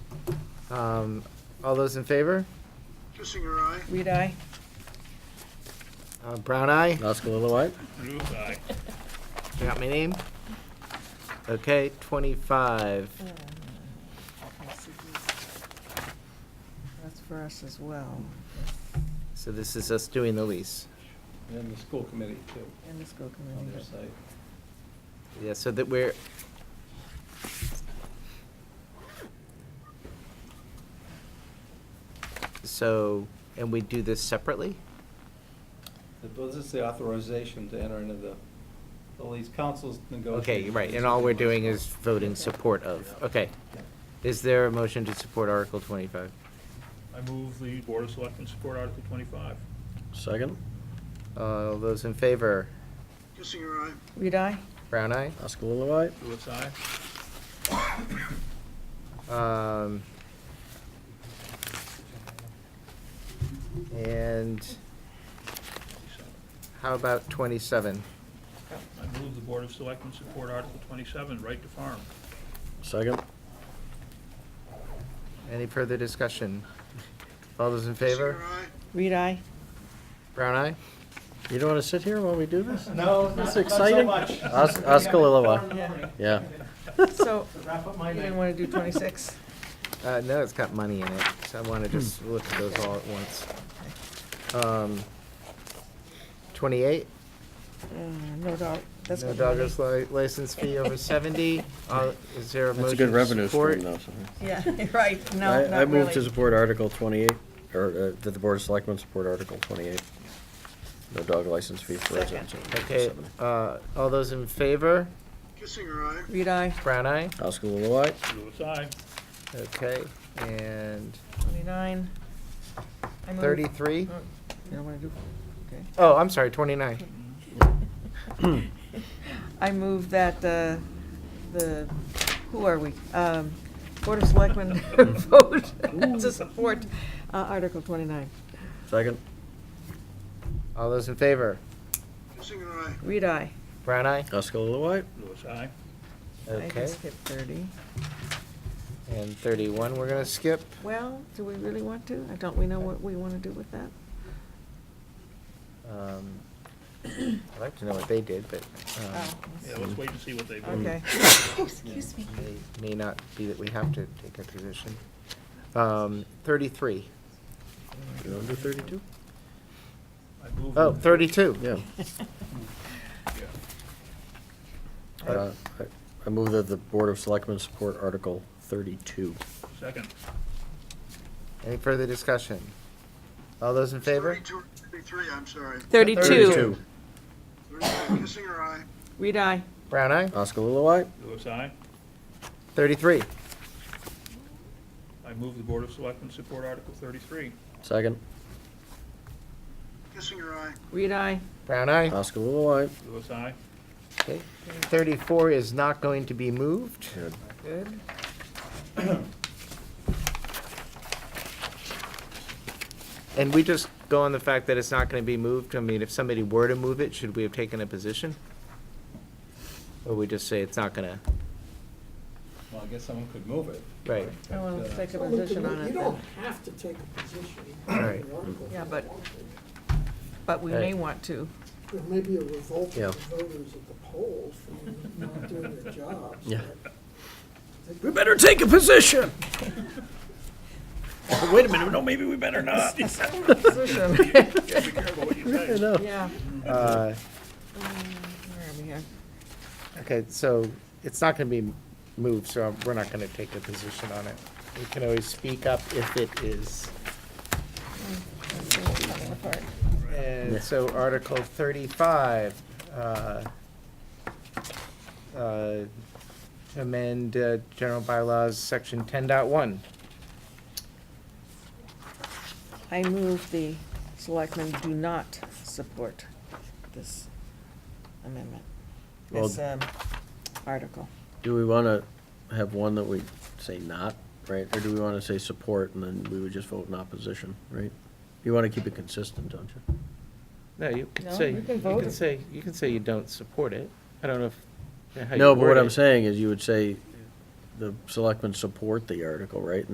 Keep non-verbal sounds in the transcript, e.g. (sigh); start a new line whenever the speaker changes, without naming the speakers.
Um, all those in favor?
Kissinger, aye.
Read I.
Uh, Brown eye?
Oskalilowite?
Ruth, aye.
Got my name? Okay, twenty-five.
That's for us as well,
So this is us doing the lease.
And the school committee too,
and the school
on
committee.
their
but-
site.
Yeah, so that we're. So, and we do this separately?
The- but This is the authorization to enter into the, the lease councils negotiating.
Okay, right, and all we're doing is voting support of, okay. Is there a motion to support Article twenty-five?
I move the Board of Selectmen support Article twenty-five.
Second?
All those in favor?
Kissinger, aye.
Read I.
Brown eye?
Oskalilowite?
Ruth, aye.
Um, and how about twenty-seven?
I move the Board of Selectmen support Article twenty-seven, right to farm.
Second?
Any further discussion? All those in favor?
Kissinger, aye.
Read (laughs) I.
Brown eye?
You don't want to sit here while we do this?
No, not
That's
not so
exciting.
much. (laughs)
Os- Oskalilowite,
Yeah.
yeah.
So,
Wrap up
you
my
didn't
night.
want to do (laughs) 26?
Uh, no, it's got money in it, so I wanna just
Hmm.
look at those all at once. Um, twenty-eight?
Uh, No dog, that's.
No
got money.
dogger's li- license fee over
(laughs)
seventy, Uh, is there a
That's a
motion
good
to
revenue
support?
stream, though. so.
Yeah, (laughs) right, no,
I-
not
I move to
really.
support Article 28, or uh, that the Board of Selectmen support Article 28. No dog license fee for
Second.
residents. of
Okay,
seven.
uh, all those in favor?
Kissinger, aye.
Read I,
Brown eye?
Oskalilowite?
Ruth, aye.
Okay, and
29. I move-
thirty-three?
Oh, You don't want to do, okay.
Oh, I'm sorry, twenty-nine.
I move that uh, the, who are we? Um, Board of Selectmen vote to support uh, Article 29.
Second?
All those in favor?
Kissinger, aye.
Read I.
Brown eye?
Oskalilowite?
Ruth, aye.
I
Okay,
can skip 30.
and thirty-one, we're gonna skip.
Well, do we really want to? Uh, Don't we know what we want to do with that?
Um, I'd like to know what they did, but, um,
Yeah,
Oh.
let's wait and see what they vote.
Okay.
Excuse
Oh.
me.
may- may not be that we have to take a position. Um, thirty-three.
You want to do 32?
I move
Oh,
the-
thirty-two.
Yeah.
Yeah.
Uh, I I move that the Board of Selectmen support Article 32.
Second.
Any further discussion? All those in favor?
32, 33, I'm sorry.
32.
32.
33, Kissinger, aye.
Read I.
Brown
Uh.
eye?
Oskalilowite?
Ruth, aye.
Thirty-three.
I move the Board of Selectmen support Article thirty-three.
Second?
Kissinger, aye.
Read I.
Brown eye?
Oskalilowite?
Ruth, aye.
Okay. Thirty-four is not going to be moved.
Good.
Good. (clears throat) And we just go on the fact that it's not gonna be moved, I mean, if somebody were to move it, should we have taken a position? Or we just say it's not gonna,
Well, I guess someone could move it. uh,
right,
I want to take a
Well, we
position
can-
on it
You don't
then.
have to take a position
all
on
right.
the article.
Yeah, but, but we may want to.
There may be a revolt of
Yeah.
the voters at the polls from not doing their jobs.
Yeah.
but
We better take a position!
Wait a minute, no, maybe we better not.
(laughs)
Be
Position.
careful what you
I
say.
know.
Yeah.
Uh,
Where are we here?
Okay, so it's not gonna be moved, so we're not gonna take a position on it. We can always speak up if it is. And so Article thirty-five, uh, uh, amend uh, general bylaws, section ten dot one.
I move the selectmen do not support this amendment, this
Well-
um, article.
Do we want to have one that we say not, right? Or do we want to say support and then we would just vote in opposition, right? You want to keep it consistent, don't you?
No, you
No,
can say,
you
you
can vote
can
it.
say, you can say you don't support it. I don't know if. how you
No, but
word
what
it.
I'm saying is you would say the selectmen support the article, right?